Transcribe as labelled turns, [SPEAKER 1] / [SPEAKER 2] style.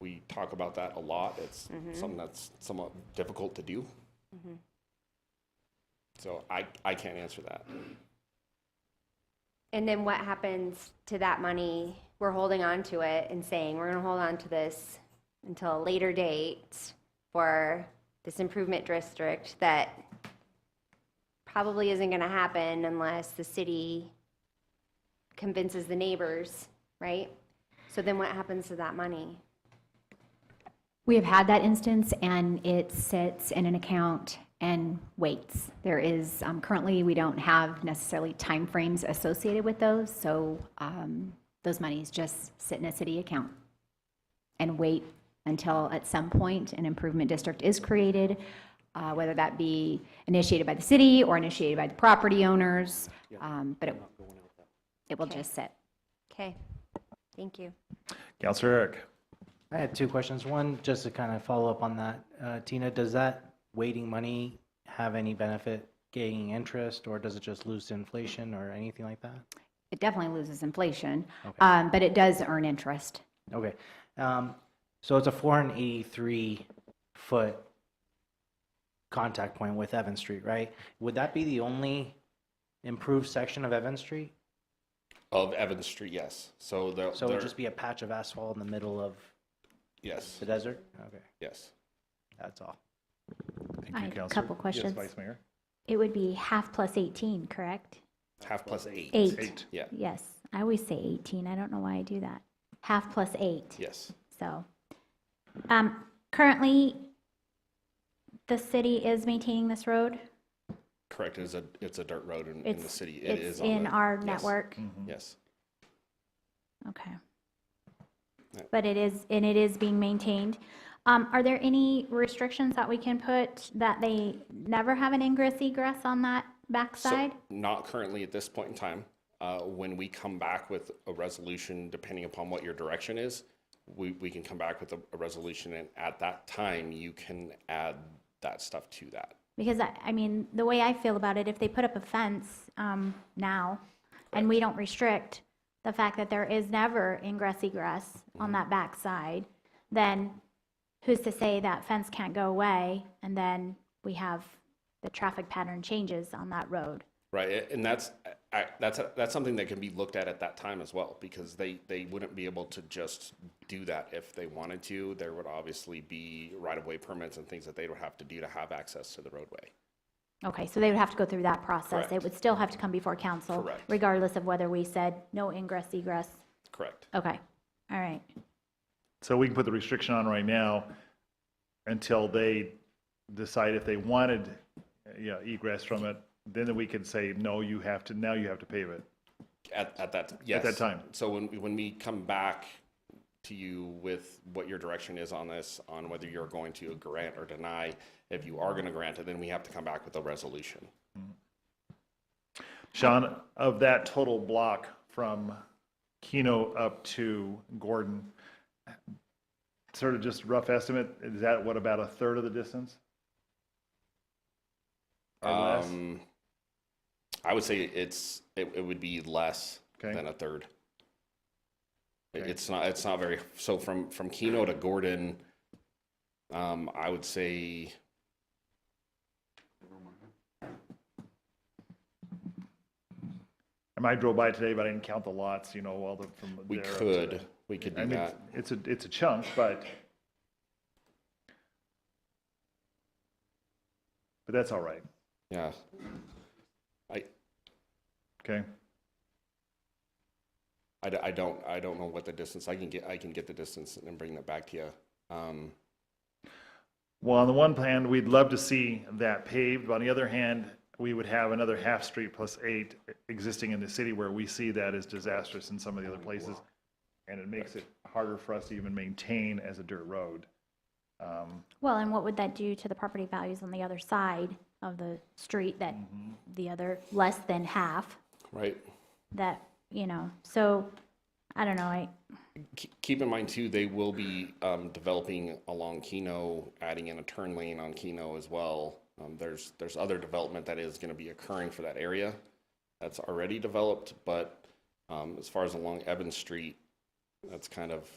[SPEAKER 1] we talk about that a lot. It's something that's somewhat difficult to do. So I, I can't answer that.
[SPEAKER 2] And then what happens to that money? We're holding on to it and saying, we're gonna hold on to this until a later date for this improvement district that probably isn't gonna happen unless the city convinces the neighbors, right? So then what happens to that money?
[SPEAKER 3] We have had that instance, and it sits in an account and waits. There is, um, currently, we don't have necessarily timeframes associated with those, so um, those monies just sit in a city account and wait until at some point an improvement district is created, uh, whether that be initiated by the city or initiated by the property owners, um, but it it will just sit.
[SPEAKER 2] Okay, thank you.
[SPEAKER 4] Counselor Eric.
[SPEAKER 5] I had two questions. One, just to kind of follow up on that. Uh, Tina, does that waiting money have any benefit gaining interest, or does it just lose to inflation or anything like that?
[SPEAKER 3] It definitely loses inflation, um, but it does earn interest.
[SPEAKER 5] Okay. Um, so it's a 483 foot contact point with Evan Street, right? Would that be the only improved section of Evan Street?
[SPEAKER 1] Of Evans Street, yes. So there,
[SPEAKER 5] So it
[SPEAKER 1] there-
[SPEAKER 5] would just be a patch of asphalt in the middle of
[SPEAKER 1] yes,
[SPEAKER 5] the desert? Okay,
[SPEAKER 1] yes.
[SPEAKER 5] that's all.
[SPEAKER 3] I
[SPEAKER 4] Thank you,
[SPEAKER 3] have a
[SPEAKER 4] Counselor.
[SPEAKER 3] couple questions.
[SPEAKER 4] Yes, Vice Mayor.
[SPEAKER 6] It would be half plus 18, correct?
[SPEAKER 1] Half plus eight.
[SPEAKER 6] Eight.
[SPEAKER 1] Yeah,
[SPEAKER 6] Yes. I always say 18. I don't know why I do that. Half plus eight.
[SPEAKER 1] yes.
[SPEAKER 6] So, um, currently, the city is maintaining this road?
[SPEAKER 1] Correct. It's a, it's a dirt road in, in the
[SPEAKER 6] It's-
[SPEAKER 1] city. It is
[SPEAKER 6] It's
[SPEAKER 1] on
[SPEAKER 6] in
[SPEAKER 1] the-
[SPEAKER 6] our
[SPEAKER 1] yes, Mm-hmm.
[SPEAKER 6] network?
[SPEAKER 1] Yes,
[SPEAKER 6] Okay.
[SPEAKER 1] Yeah.
[SPEAKER 6] But it is, and it is being maintained. Um, are there any restrictions that we can put that they never have an ingress egress on that backside?
[SPEAKER 1] So, not currently at this point in time. Uh, when we come back with a resolution, depending upon what your direction is, we, we can come back with a, a resolution, and at that time, you can add that stuff to that.
[SPEAKER 6] Because I, I mean, the way I feel about it, if they put up a fence, um, now, and we don't restrict the fact that there is never ingress egress
[SPEAKER 1] Mm-hmm.
[SPEAKER 6] on that backside, then who's to say that fence can't go away? And then we have the traffic pattern changes on that road.
[SPEAKER 1] Right, a- and that's, I, that's, that's something that can be looked at at that time as well, because they, they wouldn't be able to just do that if they wanted to. There would obviously be right-of-way permits and things that they would have to do to have access to the roadway.
[SPEAKER 6] Okay, so they would have to go through that process.
[SPEAKER 1] Correct.
[SPEAKER 6] It would still have to come before council.
[SPEAKER 1] Correct.
[SPEAKER 6] Regardless of whether we said no ingress egress.
[SPEAKER 1] Correct.
[SPEAKER 6] Okay, all right.
[SPEAKER 4] So we can put the restriction on right now until they decide if they wanted, uh, you know, egress from it. Then we can say, no, you have to, now you have to pave it.
[SPEAKER 1] At, at that, yes.
[SPEAKER 4] time.
[SPEAKER 1] So when, when we come back to you with what your direction is on this, on whether you're going to grant or deny, if you are gonna grant it, then we have to come back with a resolution.
[SPEAKER 4] Sean, of that total block from Keno up to Gordon, sort of just rough estimate, is that what, about a third of the distance? Or less?
[SPEAKER 1] Um, I would say it's, it, it would be less
[SPEAKER 4] Okay.
[SPEAKER 1] than a third. It-
[SPEAKER 4] Okay.
[SPEAKER 1] It's not, it's not very, so from, from Keno to Gordon, um, I would say.
[SPEAKER 4] I might drove by today, but I didn't count the lots, you know, all the, from there.
[SPEAKER 1] We
[SPEAKER 4] up to
[SPEAKER 1] could,
[SPEAKER 4] the-
[SPEAKER 1] we could
[SPEAKER 4] I
[SPEAKER 1] do
[SPEAKER 4] mean,
[SPEAKER 1] that.
[SPEAKER 4] It's a, it's a chunk, but. But that's all right,
[SPEAKER 1] Yeah. I,
[SPEAKER 4] okay?
[SPEAKER 1] I, d- I don't, I don't know what the distance, I can get, I can get the distance and bring that back to you. Um,
[SPEAKER 4] Well, on the one hand, we'd love to see that paved, but on the other hand, we would have another half street plus eight existing in the city where we see that as disastrous in some of the other places. And it makes it harder for us to even maintain as a dirt road. Um,
[SPEAKER 6] Well, and what would that do to the property values on the other side of the street that the other, less than half,
[SPEAKER 1] right?
[SPEAKER 6] that, you know, so, I don't know, I,
[SPEAKER 1] K- Keep in mind too, they will be um, developing along Keno, adding in a turn lane on Keno as well. Um, There's, there's other development that is going to be occurring for that area that's already developed, but um, as far as along Evans Street, that's kind of